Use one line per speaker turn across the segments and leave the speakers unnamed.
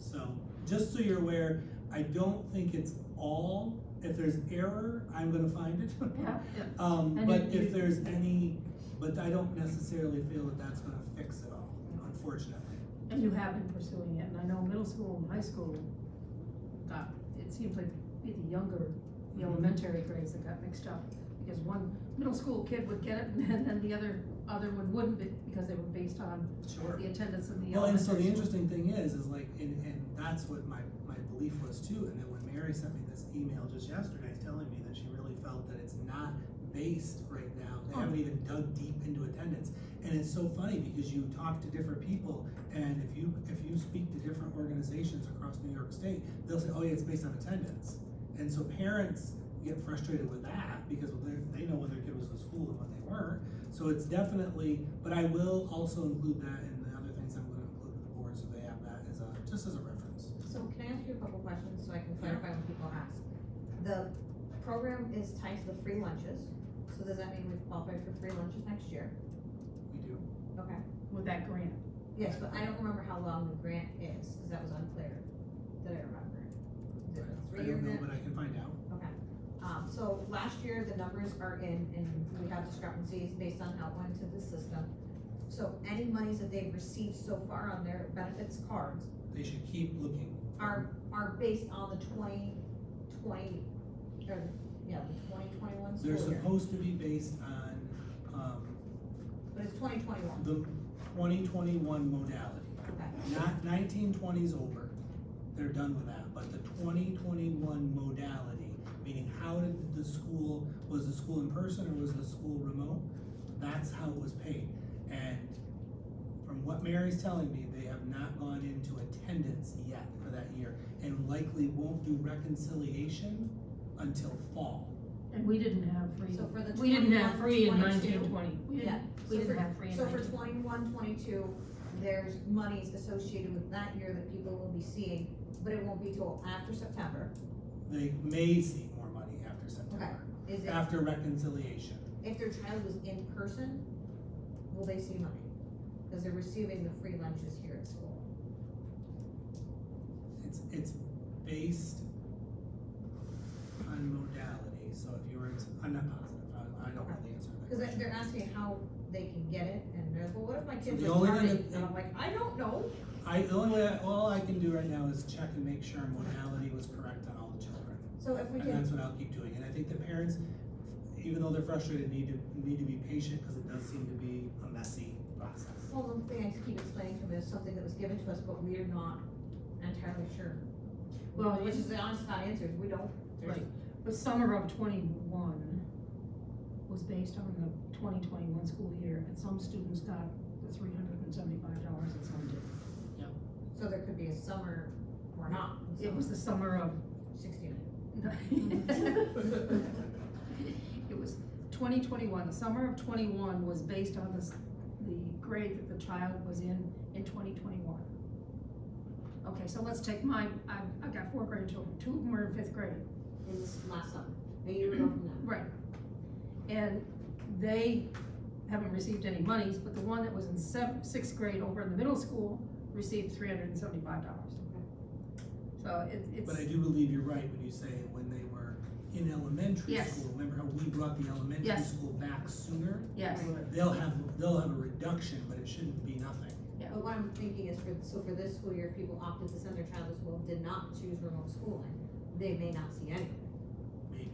So, just so you're aware, I don't think it's all, if there's error, I'm gonna find it.
Yeah.
Um,
And
but
if
if
you-
there's any, but I don't necessarily feel that that's gonna fix it all, unfortunately.
And you have been pursuing it, and I know middle school and high school got, it seems like maybe the younger, the
Mm-hmm.
elementary grades that got mixed up. Because one middle school kid would get it, and then, then the other, other one wouldn't, be- because they were based on
Sure.
the attendance of the
Well, and so the
elementary. school.
interesting thing is, is like, and, and that's what my, my belief was too, and then when Mary sent me this email just yesterday telling me that she really felt that it's not based right now, they
Oh.
haven't even dug deep into attendance, and it's so funny because you talk to different people, and if you, if you speak to different organizations across New York State, they'll say, oh yeah, it's based on attendance, and so parents get frustrated with that, because they, they know when their kid was in school and when they weren't, so it's definitely, but I will also include that in the other things I'm gonna include with the board, so they have that as a, just as a reference.
So can I ask you a couple questions so I can clarify when people ask? The program is tied to the free lunches, so does that mean we've qualified for free lunches next year?
We do.
Okay.
With that grant,
Yes, but I don't remember how long the grant is, because that was unclear that I remember. Is it a
I
three-year
don't know,
grant?
but I can find out.
Um, so last year, the numbers are in, and we have discrepancies based on outline to the system. So any monies that they've received so far on their benefits cards
They should keep looking.
are, are based on the twenty twenty, or, yeah, the twenty twenty-one
They're
school year.
supposed to be based on, um,
But it's twenty twenty-one,
the twenty twenty-one modality,
okay,
not nineteen twenties over. They're done with that, but the twenty twenty-one modality, meaning how did the school, was the school in person or was the school remote? That's how it was paid. And from what Mary's telling me, they have not gone into attendance yet for that year and likely won't do reconciliation until fall.
and we didn't have free,
so for the
we didn't
twenty-one,
have free in nineteen
twenty-two.
twenty, we
Yeah,
didn't, we
so
didn't
for,
have free in
so for
19.
twenty-one, twenty-two, there's monies associated with that year that people will be seeing, but it won't be till after September.
They may see more money after September,
Is it,
after reconciliation.
if their child was in person, will they see money? Cause they're receiving the free lunches here at school.
It's, it's based on modality, so if you were, to- I'm not positive, I, I don't know the answer to
Cause
that
they're,
question.
they're asking how they can get it, and they're like, well, what if my kid
The
was
only thing
learning,
that-
and I'm like, I don't know.
I, the only way, I- all I can do right now is check and make sure modality was correct on all the children.
So if we
And
can,
that's what I'll keep doing, and I think the parents, even though they're frustrated, need to, need to be patient, cause it does seem to be a messy process.
well, the thing I keep explaining to them is something that was given to us, but we are not entirely sure.
Well,
Which
it's-
is the honest not answer, we don't, there's,
Right. but summer of twenty-one was based on the twenty twenty-one school year, and some students got the three hundred and seventy-five dollars and some didn't.
so there could be a summer or not,
It was the summer of,
sixteen.
it was twenty twenty-one, the summer of twenty-one was based on the, s- the grade that the child was in in twenty twenty-one. Okay, so let's take my, I've, I've got four grade children, two of them are in fifth grade.
In this last summer, a year ago from now.
Right. And they haven't received any monies, but the one that was in sev- sixth grade over in the middle school received three hundred and seventy-five dollars. So it, it's.
But I do believe you're right when you say when they were in elementary
Yes.
school, remember how we brought the elementary
Yes.
school back sooner?
Yes,
They'll have, they'll have a reduction, but it shouldn't be nothing.
But what I'm thinking is for, so for this school year, if people opted to send their child to school, did not choose remote schooling, they may not see any.
Maybe.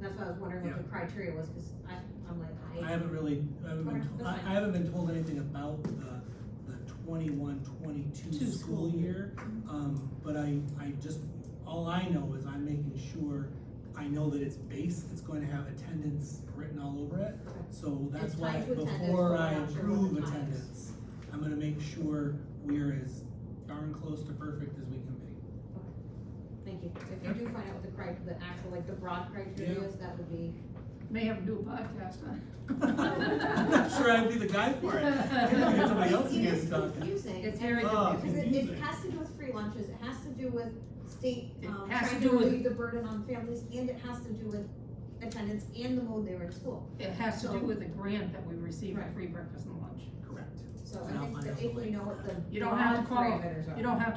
That's why I was wondering what the criteria was, cause I, I'm like,
I haven't really, I haven't been,
Okay,
to- I,
that's fine.
I haven't been told anything about the, the twenty-one, twenty-two
Two
school
school
year. Um, but I, I just, all I know is I'm making sure, I know that it's base, it's going to have attendance written all over it.
Okay.
So that's
It's
why,
tied to attendance,
before
we're
I
not sure what the
approve
time is.
attendance, I'm gonna make sure we're as darn close to perfect as we can be.
Thank you. If you do find out what the cri, the actual, like, the broad criteria
Yeah.
is, that would be,
may have to do a podcast on it.
I'm not sure I'd be the guy for it. I think I'd get somebody else to get
it's
stuck.
confusing.
It's very
Oh.
confusing.
Because it, it
confusing.
has to do with free lunches, it has to do with state,
It
um,
has
trying
to
to
do with-
relieve the burden on families, and it has to do with attendance and the mode they were in school.
It has to do
So-
with a grant that we received for
Right.
free breakfast and lunch.
Correct.
So so
And
I
I'll
think
find out
that
the
if we
link.
know what the
You don't have to
broad
qualify.
parameters are.
You don't have